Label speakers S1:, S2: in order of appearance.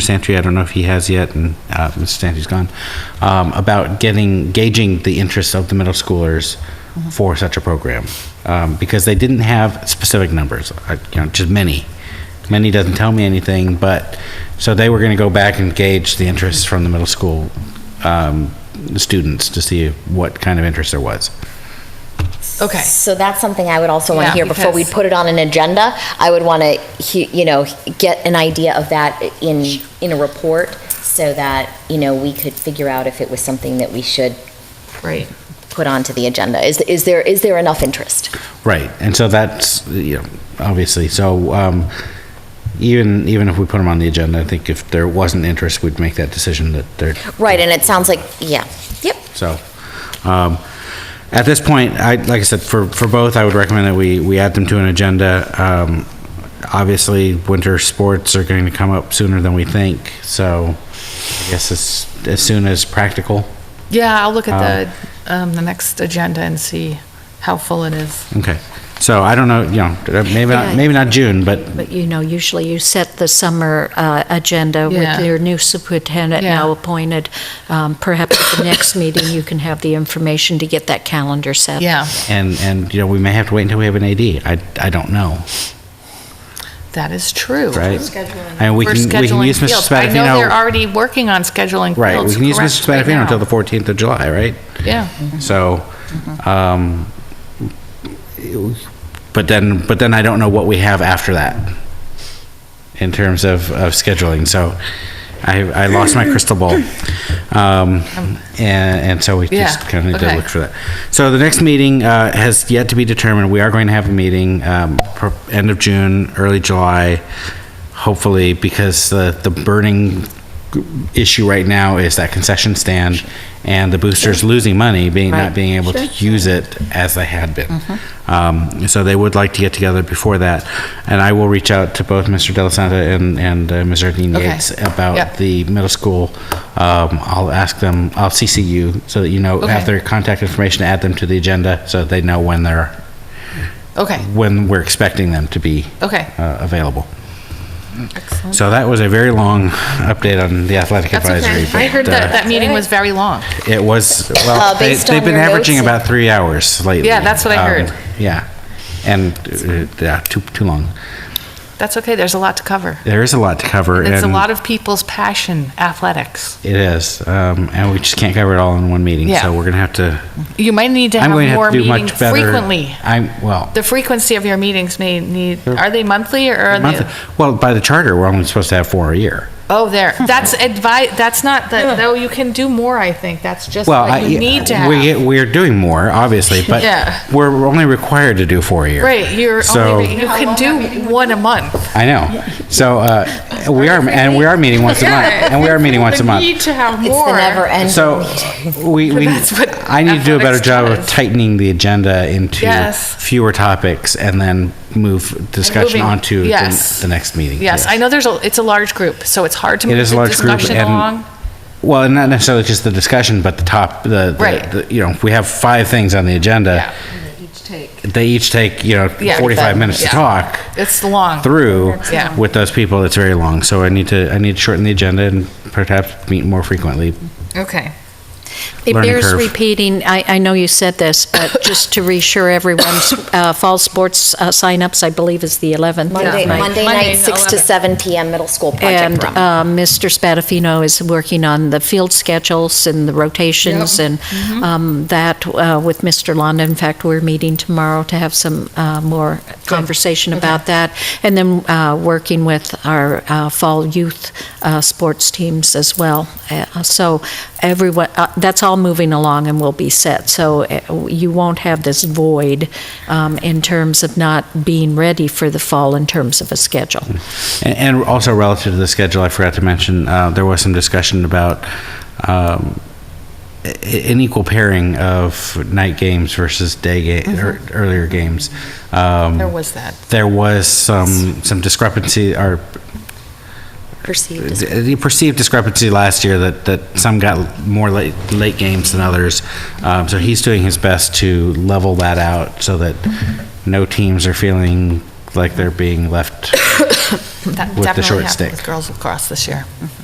S1: Santry, I don't know if he has yet, and uh, Mr. Santry's gone, um, about getting, gauging the interest of the middle schoolers for such a program. Um, Because they didn't have specific numbers, uh, you know, just many. Many doesn't tell me anything, but, so they were going to go back and gauge the interest from the middle school um, students to see what kind of interest there was.
S2: Okay.
S3: So that's something I would also want
S2: Yeah,
S3: to hear before we
S2: because-
S3: put it on an agenda. I would want to, you know, get an idea of that in, in a report so that, you know, we could figure out if it was something that we should
S2: Right.
S3: put onto the agenda. Is, is there, is there enough interest?
S1: Right, and so that's, you know, obviously, so um, even, even if we put them on the agenda, I think if there wasn't interest, we'd make that decision that they're,
S3: Right, and it sounds like, yeah, yep.
S1: so. um, At this point, I, like I said, for, for both, I would recommend that we, we add them to an agenda. Um, Obviously, winter sports are going to come up sooner than we think, so I guess as, as soon as practical.
S2: Yeah, I'll look at the, um, the next agenda and see how full it is.
S1: Okay, so I don't know, you know, maybe, not- maybe not June, but
S4: But you know, usually you set the summer uh, agenda with
S2: Yeah.
S4: your new superintendent now
S2: Yeah.
S4: appointed. Um, Perhaps at the next meeting, you can have the information to get that calendar set.
S2: Yeah,
S1: And, and, you know, we may have to wait until we have an AD. I, I don't know,
S2: that is true.
S1: right? And we
S2: For
S1: can, we can
S2: scheduling
S1: use Mr.
S2: fields. I know
S1: Spadafino.
S2: they're already working on scheduling fields.
S1: Right, we can use
S2: correct,
S1: Mr.
S2: right
S1: Spadafino until
S2: now. Mm-hmm.
S1: the 14th of July, right?
S2: Yeah,
S1: So, um, but then, but then I don't know what we have after that in terms of, of scheduling. So I, I lost my crystal ball. Um, and, and so we just
S2: Yeah,
S1: kind of did
S2: okay.
S1: look for that. So the next meeting, uh, has yet to be determined. We are going to have a meeting, um, pro- end of June, early July, hopefully, because the, the burning issue right now is that concession stand and the boosters losing money, being, not
S4: Right.
S1: being able to use it as they had been.
S2: Mm-hmm.
S1: Um, so they would like to get together before that. And I will reach out to both Mr. Delisanta and, and uh, Ms. Erdine
S2: Okay.
S1: Yates about
S2: Yep.
S1: the middle school. Um, I'll ask them, I'll CC you so that you know,
S2: Okay.
S1: have their contact information, add them to the agenda so they know when they're,
S2: okay,
S1: when we're expecting them to be
S2: okay.
S1: uh, available.
S2: Excellent.
S1: So that was a very long update on the athletic
S2: That's
S1: advisory.
S2: okay. I
S1: but,
S2: heard
S1: uh,
S2: that that meeting was very long.
S1: It was, well,
S3: Uh,
S1: they,
S3: based
S1: they've
S3: on
S1: been
S3: your
S1: averaging
S3: notes,
S1: about three hours lately.
S2: Yeah, that's what I
S1: Um,
S2: heard.
S1: Yeah, and, uh, yeah, too, too long.
S2: That's okay, there's a lot to cover.
S1: There is a lot to cover.
S2: It's a
S1: and
S2: lot of people's passion, athletics.
S1: It is, um, and we just can't cover it all in one meeting,
S2: Yeah.
S1: so we're gonna have to,
S2: You might need to have
S1: I'm going to
S2: more
S1: have to do
S2: meetings
S1: much better.
S2: frequently.
S1: I'm, well,
S2: The frequency of your meetings may need, are they monthly or are
S1: monthly,
S2: they?
S1: well, by the charter, we're only supposed to have four a year.
S2: Oh, there, that's advice, that's not, the- though you can do more, I think, that's just
S1: Well, I,
S2: what you need to
S1: we,
S2: have.
S1: we're doing more, obviously, but
S2: Yeah.
S1: we're only required to do four a year.
S2: Right, you're
S1: So-
S2: only, you can do one a month.
S1: I know. So uh, we are, and we are meeting once a month, and we are meeting once a
S2: The need
S1: month.
S2: to have
S3: It's the
S2: more.
S3: never ending.
S1: So we, we,
S2: That's what
S1: I need to do a better
S2: athletics
S1: job of
S2: does.
S1: tightening the agenda into
S2: Yes.
S1: fewer topics and then move discussion
S2: moving-
S1: onto the
S2: yes.
S1: the next meeting.
S2: Yes, I know there's a, it's a large group, so it's hard to
S1: It
S2: move
S1: is a
S2: the
S1: large group
S2: discussion
S1: and-
S2: along.
S1: Well, and not necessarily just the discussion, but the top, the-
S2: Right.
S1: the, the- you know, we have five things on the agenda. They each take, you know,
S2: Yeah.
S1: 45 minutes to
S2: Yeah.
S1: talk.
S2: It's long.
S1: through
S2: Yeah.
S1: with those people, it's very long. So I need to, I need to shorten the agenda and perhaps meet more frequently.
S2: Okay.
S4: It
S1: Learning
S4: bears
S1: curve.
S4: repeating, I, I know you said this, but just to reassure everyone, uh, fall sports uh, signups, I believe, is the 11th.
S3: Monday,
S4: Right.
S3: Monday
S2: Monday,
S3: night, 6 to
S2: 11.
S3: 7 PM, middle school project
S4: And
S3: room.
S4: uh, Mr. Spadafino is working on the field schedules and the rotations and um, that uh, with Mr. Londa. In fact, we're meeting tomorrow to have some uh, more conversation about that. And then uh, working with our uh, fall youth uh, sports teams as well. Uh, So everyone, uh, that's all moving along and will be set. So uh, you won't have this void um, in terms of not being ready for the fall in terms of a schedule.
S1: And, and also relative to the schedule, I forgot to mention, uh, there was some discussion about, um, i- an equal pairing of night games versus day ga-
S2: Mm-hmm.
S1: or earlier games. Um,
S2: There was that.
S1: there was some, some discrepancy or
S3: Perceived as-
S1: the perceived discrepancy last year that, that some got more late, late games than others. Um, so he's doing his best to level that out so that no teams are feeling like they're being left.
S2: That
S1: With the
S2: definitely
S1: short
S2: happened
S1: stick.
S2: with girls lacrosse this year.